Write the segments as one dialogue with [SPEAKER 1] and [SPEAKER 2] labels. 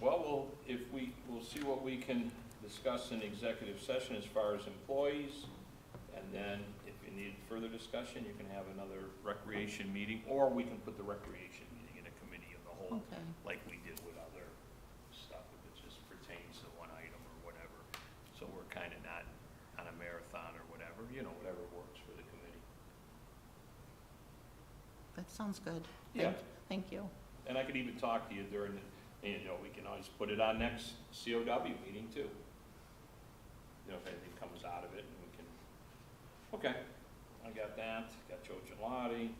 [SPEAKER 1] Well, we'll, if we, we'll see what we can discuss in executive session as far as employees. And then if you need further discussion, you can have another recreation meeting, or we can put the recreation meeting in a committee of the whole,
[SPEAKER 2] Okay,
[SPEAKER 1] like we did with other stuff, if it just pertains to one item or whatever. So we're kind of not on a marathon or whatever, you know, whatever works for the committee.
[SPEAKER 2] that sounds good.
[SPEAKER 1] Yeah.
[SPEAKER 2] Thank- Thank you.
[SPEAKER 1] And I could even talk to you during, the- you know, we can always put it on next COW meeting too. You know, if anything comes out of it, and we can, okay, I got that, got Joe Gelati.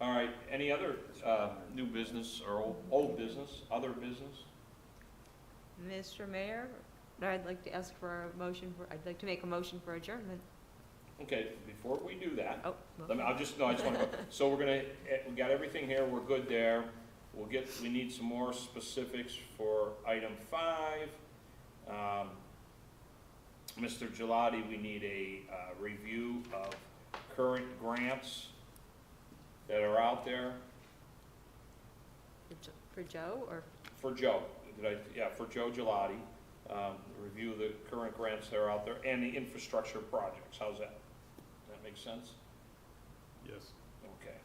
[SPEAKER 1] All right, any other, uh, new business or old, old business, other business?
[SPEAKER 3] Mr. Mayor, I'd like to ask for a motion, for. I'd like to make a motion for adjournment.
[SPEAKER 1] Okay, before we do that,
[SPEAKER 3] Oh,
[SPEAKER 1] Let me, I'll just, no, I just want to, so we're gonna, eh, we got everything here, we're good there. We'll get, we need some more specifics for item five. Um, Mr. Gelati, we need a, uh, review of current grants that are out there
[SPEAKER 3] for Joe, or,
[SPEAKER 1] for Joe. Did I, yeah, for Joe Gelati, um, review the current grants that are out there and the infrastructure projects. How's that? Does that make sense?
[SPEAKER 4] Yes.
[SPEAKER 1] Okay.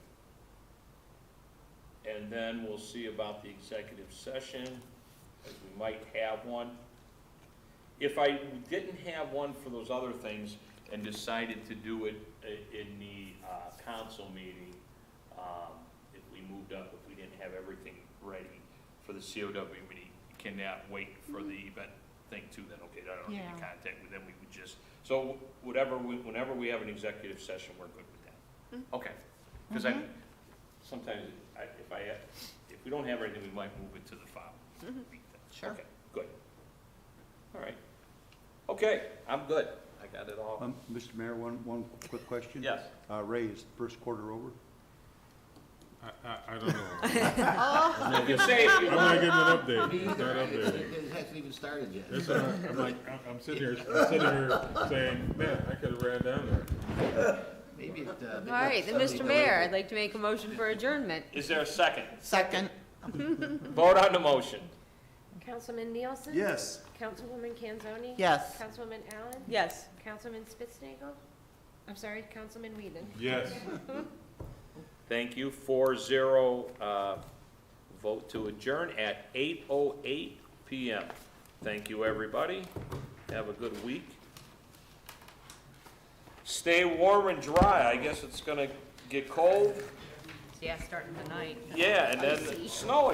[SPEAKER 1] And then we'll see about the executive session, as we might have one. If I didn't have one for those other things and decided to do it i- in the uh, council meeting, um, if we moved up, if we didn't have everything ready for the COW meeting, can that wait for the event thing too, then, okay, I don't need
[SPEAKER 2] Yeah.
[SPEAKER 1] to contact, with them, we would just, so whatever, we- whenever we have an executive session, we're good with that. Okay, because I,
[SPEAKER 2] Mhm.
[SPEAKER 1] sometimes, I, if I, if we don't have anything, we might move it to the file.
[SPEAKER 2] Sure.
[SPEAKER 1] Okay, good. All right. Okay, I'm good. I got it all.
[SPEAKER 4] Um, Mr. Mayor, one, one quick question?
[SPEAKER 1] Yes.
[SPEAKER 4] Uh, Ray, is the first quarter over?
[SPEAKER 5] I, I, I don't know.
[SPEAKER 1] You can say if you
[SPEAKER 5] I'm
[SPEAKER 1] want.
[SPEAKER 5] not getting an update. It's not
[SPEAKER 6] Neither,
[SPEAKER 5] updated.
[SPEAKER 6] it it hasn't even started yet.
[SPEAKER 5] That's all right. I'm like, I'm, I'm sitting here, I'm sitting here saying, man, I could have ran down there.
[SPEAKER 6] Maybe it, uh.
[SPEAKER 3] all
[SPEAKER 6] maybe
[SPEAKER 3] right, then,
[SPEAKER 6] somebody
[SPEAKER 3] Mr.
[SPEAKER 6] delivered
[SPEAKER 3] Mayor,
[SPEAKER 6] it.
[SPEAKER 3] I'd like to make a motion for adjournment.
[SPEAKER 1] Is there a second?
[SPEAKER 2] Second,
[SPEAKER 1] Vote on the motion.
[SPEAKER 7] Councilman Nielsen?
[SPEAKER 4] Yes.
[SPEAKER 7] Councilwoman Kanzoni?
[SPEAKER 2] yes.
[SPEAKER 7] Councilwoman Allen?
[SPEAKER 3] Yes.
[SPEAKER 7] Councilman Spitznagel. I'm sorry, Councilman Whedon?
[SPEAKER 5] Yes.
[SPEAKER 1] Thank you. Four zero, uh, vote to adjourn at eight oh eight PM. Thank you, everybody. Have a good week. Stay warm and dry. I guess it's gonna get cold.
[SPEAKER 3] Yeah, starting tonight.
[SPEAKER 1] Yeah, and then snow